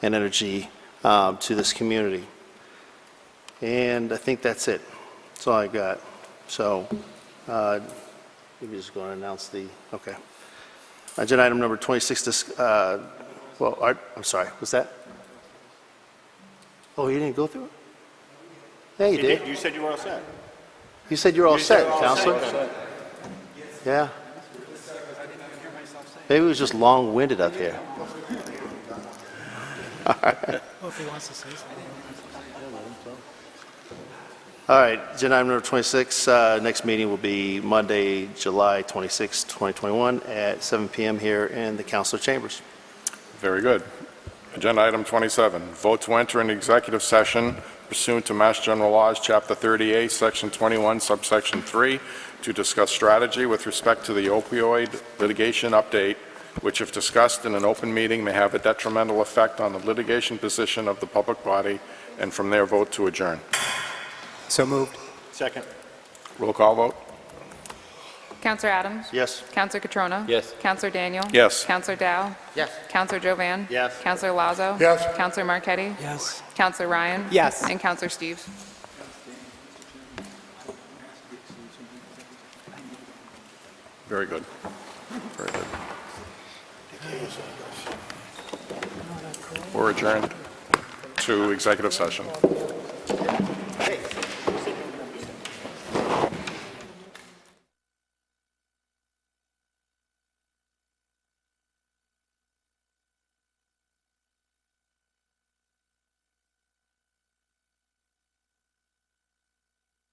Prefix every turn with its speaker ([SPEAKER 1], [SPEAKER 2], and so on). [SPEAKER 1] and energy um, to this community. And I think that's it. That's all I got. So, uh, maybe just going to announce the, okay. Agenda item number 26, dis- uh, well, Art, I'm sorry, was that? Oh, you didn't go through it? Yeah, you
[SPEAKER 2] You
[SPEAKER 1] did.
[SPEAKER 2] did, you said you were all set.
[SPEAKER 1] You said you're all set, Counselor. Yeah. Maybe it was just long-winded up here.
[SPEAKER 3] Well, if he wants to say something.
[SPEAKER 1] All right, agenda item number 26, uh, next meeting will be Monday, July 26, 2021, at 7 PM here in the council chambers.
[SPEAKER 4] Very good. Agenda item 27, vote to enter an executive session pursuant to Mass General Laws, Chapter 38, Section 21, Subsection 3, to discuss strategy with respect to the opioid litigation update, which if discussed in an open meeting may have a detrimental effect on the litigation position of the public body, and from there vote to adjourn.
[SPEAKER 5] So moved.
[SPEAKER 2] Second.
[SPEAKER 4] Roll call vote?
[SPEAKER 6] Counselor Adams?
[SPEAKER 1] Yes?
[SPEAKER 6] Counselor Catrona?
[SPEAKER 2] Yes.
[SPEAKER 6] Counselor Daniel?
[SPEAKER 4] Yes.
[SPEAKER 6] Counselor Dow?
[SPEAKER 3] Yes.
[SPEAKER 6] Counselor Jovan?
[SPEAKER 2] Yes.
[SPEAKER 6] Counselor Lazo? Yes. Counselor Marquetti?
[SPEAKER 5] Yes.
[SPEAKER 6] Counselor Ryan?
[SPEAKER 5] Yes.
[SPEAKER 6] And Counselor Steves?
[SPEAKER 4] Very good. Very good. We're adjourned to executive session.